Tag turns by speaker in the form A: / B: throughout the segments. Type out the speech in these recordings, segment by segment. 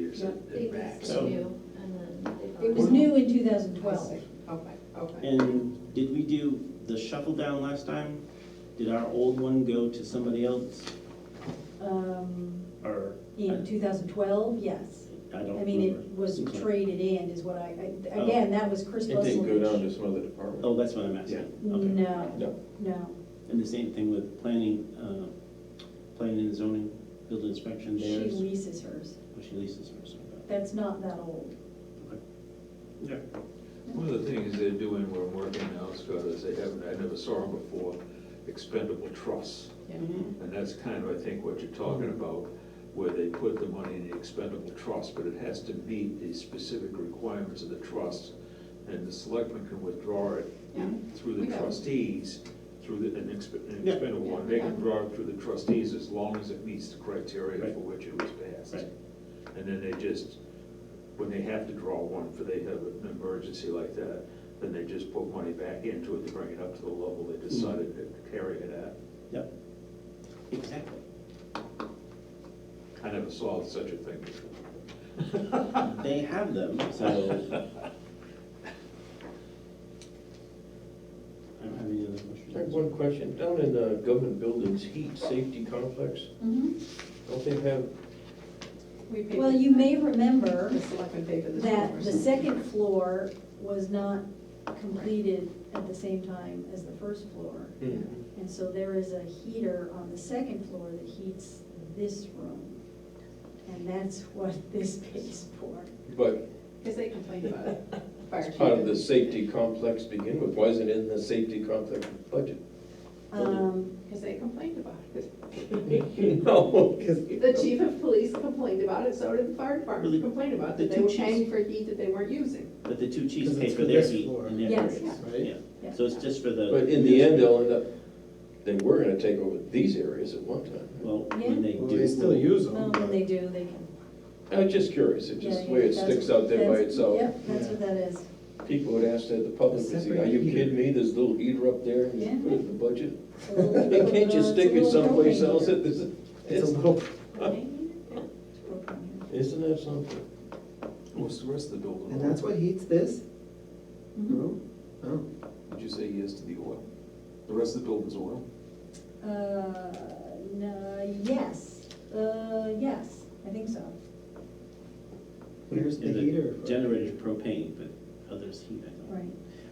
A: percent
B: They
A: did
B: leased
A: racks.
B: it
C: So-
B: new, and then they.
D: It was
B: bought
D: new in two
A: I
D: thousand twelve.
A: see. Okay, okay.
C: And did we do the shuffle down last time? Did our old one go to somebody else,
D: Um, In
C: or?
D: two thousand twelve, yes.
C: I I don't
D: I mean, it
C: remember.
D: was
C: Okay.
D: traded in is what I, I-
C: Oh.
D: again, that was Chris
E: It didn't go down
D: Ruslovich.
E: to some other department.
C: Oh, that's what I'm asking. Okay.
D: No,
E: No,
D: no.
C: And the same thing with planning, uh, planning and zoning, building inspection
D: She
C: theirs,
D: leases hers.
C: or she leases hers, okay.
D: That's not that old.
C: Yeah.
F: One of the things they're doing where I'm working now, Scott, is they haven't, I never saw them before, expendable trusts.
D: Mm-hmm.
F: And that's kind of, I think, what you're talking about, where they put the money in the expendable trust, but it has to meet the specific requirements of the trust. And the selectman can withdraw it
A: Yeah.
F: through
A: We
F: the
A: know.
F: trustees, through the, an exp- an
C: Yeah.
F: expendable one. They
A: Yeah.
F: can draw it through the trustees as long as it meets the criteria
C: Right.
F: for which it was passed.
C: Right.
F: And then they just, when they have to draw one, for they have an emergency like that, then they just put money back into it to bring it up to the level
C: Hmm.
F: they decided to carry it at.
C: Yep. Exactly.
F: I never saw such a thing before.
C: They have them, so. I don't have any other
E: I have
C: questions.
E: one question, down in the government buildings, heat safety complex, don't they have,
A: We paid.
D: Well, you may remember
A: The selectmen paid for this.
D: that the second floor was not completed at the same time as the first floor.
E: hmm,
D: And so there is a heater on the second floor that heats this room. And that's what this pays for.
E: but
A: Because they complained about it. Fire
E: it's part of
A: chief.
E: the safety complex to begin with, why isn't it in the safety complex budget?
D: Um,
A: Because they complained about it.
E: No, 'cause-
A: The chief of police complained about it, so did the fire department complained about
C: The
A: it, that they
C: two
A: were
C: chiefs-
A: paying for heat that they weren't using.
C: But the two chiefs
G: Because
C: pay
G: it's
C: for
G: for
C: their
G: this
C: heat
G: floor.
C: in their
D: Yes.
C: areas,
G: Right?
C: yeah. So it's just for the.
E: But in the end, they'll end up, they were gonna take over these areas at one time.
C: Well,
D: Yeah.
C: when they do.
G: Well, they still use them.
D: well,
G: but-
D: when they do, they can.
E: I was just curious, it
D: yeah,
E: just, the
D: yeah,
E: way it
D: that's-
E: sticks out there by
D: that's-
E: itself.
D: Yep, that's what that is.
E: People would ask that, the public would say,
G: Separate
E: are you
G: heater.
E: kidding me, there's a little heater up there, and
D: Yeah.
E: you put it in the budget?
D: It's a little-
E: Can't you
D: it's a
E: stick it
D: little
E: someplace
D: propane
E: else
D: heater.
E: that there's,
G: It's a little,
D: It's a propane heater.
E: isn't that something?
F: What's the rest of the building?
G: and that's what heats this
D: Mhm.
G: room? Oh,
F: Did you say yes to the oil? The rest of the building's oil?
D: Uh, no, yes, uh, yes, I think so.
G: where's the
C: Yeah,
G: heater?
C: Generator's propane, but others heat, I think.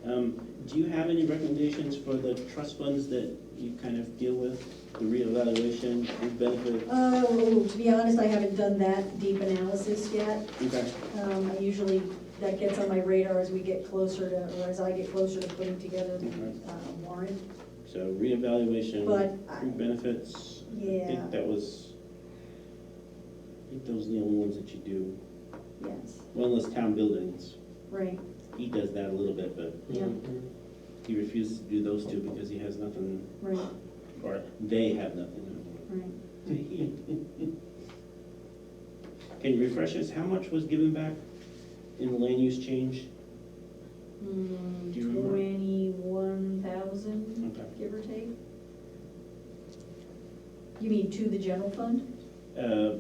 D: Right.
C: Um, do you have any recommendations for the trust funds that you kind of deal with, the reevaluation, group benefits?
D: Oh, to be honest, I haven't done that deep analysis yet.
C: Okay,
D: Um, I usually, that gets on my radar as we get closer to, or as I get closer to putting together the uh, warrant.
C: so reevaluation,
D: But I-
C: group benefits, I
D: Yeah,
C: think that was, I think those are the only ones that you do,
D: yes,
C: well, unless town buildings,
D: right,
C: he does that a little bit, but
D: yeah,
C: he refuses to do those two because he has nothing,
D: right,
C: or they have nothing
D: right.
C: to heat. Can you refresh us, how much was given back in the land use change?
D: Hmm,
C: Do you remember?
D: twenty-one thousand,
C: Okay.
D: give or take. You mean to the general fund?
C: Uh,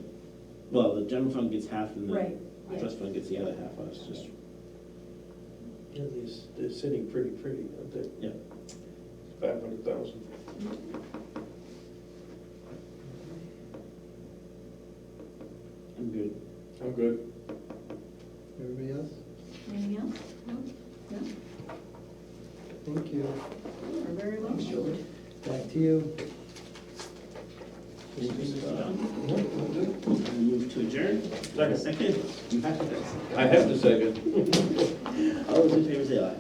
C: Well, the general fund gets half and
D: Right,
C: the
D: yeah,
C: trust fund gets the other half, I was just,
E: Yeah, they're, they're sitting pretty pretty, aren't they?
C: Yeah.
E: Five hundred thousand.
C: I'm good.
E: I'm good.
G: Everybody else?
D: anything else? No? No,
G: Thank you.
D: you're very welcome.
G: Back to you.
C: I Move to adjourn. Second. Second. You have to.
E: I have to second.
C: All those in favor say aye.